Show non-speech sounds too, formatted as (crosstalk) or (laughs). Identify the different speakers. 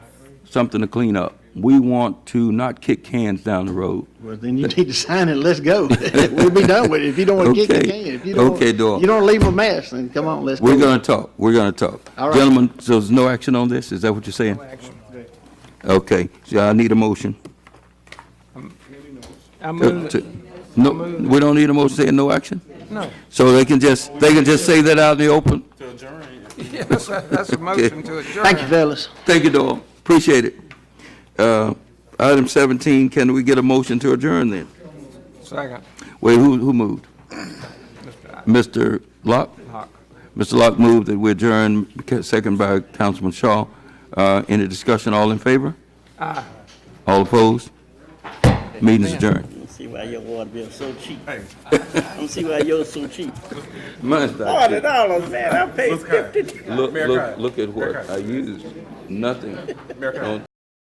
Speaker 1: something to clean up. We want to not kick cans down the road.
Speaker 2: Well, then you (laughs) need to sign it, let's go. (laughs) We'll be done with it. If you don't want to kick, you
Speaker 1: Okay.
Speaker 2: can. If you don't,
Speaker 1: Okay, Doyle.
Speaker 2: you don't leave a mess, then come on, let's go.
Speaker 1: We're gonna talk, we're gonna talk.
Speaker 2: All right.
Speaker 1: Gentlemen, so there's no action on this, is that what you're saying? Okay, so I need a motion.
Speaker 3: I
Speaker 1: Uh,
Speaker 3: move,
Speaker 1: to- No, we don't need a motion saying no action?
Speaker 3: no. (laughs)
Speaker 1: So they can just, they can just say that out in the open?
Speaker 3: Yes, that's a motion to adjourn.
Speaker 2: Thank you, fellas.
Speaker 1: Thank you, Doyle, appreciate it. Uh, Item 17, can we get a motion to adjourn then?
Speaker 3: Second,
Speaker 1: Wait, who, who moved?
Speaker 3: Mr.
Speaker 1: Mr. Locke?
Speaker 3: Hawk.
Speaker 1: Mr. Locke moved that we adjourn, second by Councilman Shaw. Uh, Any discussion, all in favor?
Speaker 3: Aye.
Speaker 1: All opposed? Meeting's adjourned.
Speaker 4: don't see why your water bill so cheap. I don't see why yours so cheap.
Speaker 1: Mine's not
Speaker 4: Forty dollars, man, I paid fifty.
Speaker 1: Look, look, look at what I used, nothing. On-